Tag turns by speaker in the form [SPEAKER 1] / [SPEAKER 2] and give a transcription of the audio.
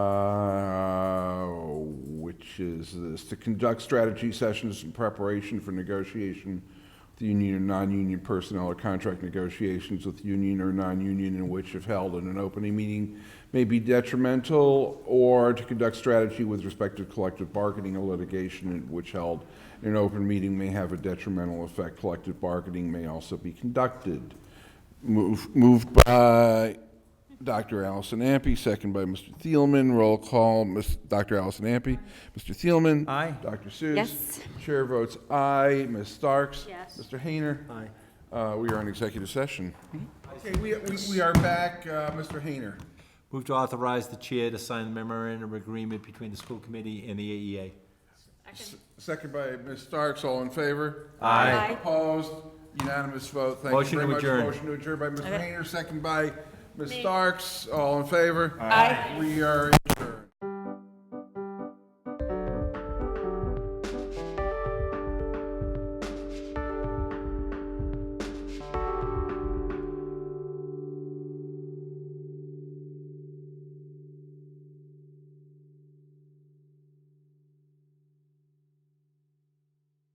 [SPEAKER 1] Uh, is this, to conduct strategy sessions in preparation for negotiation with the union or non-union personnel or contract negotiations with union or non-union in which if held in an opening meeting may be detrimental, or to conduct strategy with respect to collective bargaining or litigation in which held in an open meeting may have a detrimental effect. Collective bargaining may also be conducted. Move, moved by Dr. Allison Ampe, second by Mr. Thielman. Roll call, Ms. Dr. Allison Ampe. Mr. Thielman?
[SPEAKER 2] Aye.
[SPEAKER 1] Dr. Seuss?
[SPEAKER 3] Yes.
[SPEAKER 1] Chair votes aye. Ms. Starks?
[SPEAKER 3] Yes.
[SPEAKER 1] Mr. Hayner?
[SPEAKER 2] Aye.
[SPEAKER 1] Uh, we are in executive session. Okay, we, we, we are back, uh, Mr. Hayner.
[SPEAKER 2] Move to authorize the chair to sign the memorandum of agreement between the school committee and the E AEA.
[SPEAKER 1] Second by Ms. Starks, all in favor?
[SPEAKER 2] Aye.
[SPEAKER 3] Aye.
[SPEAKER 1] Opposed? Unanimous vote, thank you
[SPEAKER 2] Motion
[SPEAKER 1] very
[SPEAKER 2] to
[SPEAKER 1] much.
[SPEAKER 2] adjourn.
[SPEAKER 1] Motion to adjourn by Mr. Hayner, second by Ms. Starks, all in favor?
[SPEAKER 3] Aye.
[SPEAKER 1] We are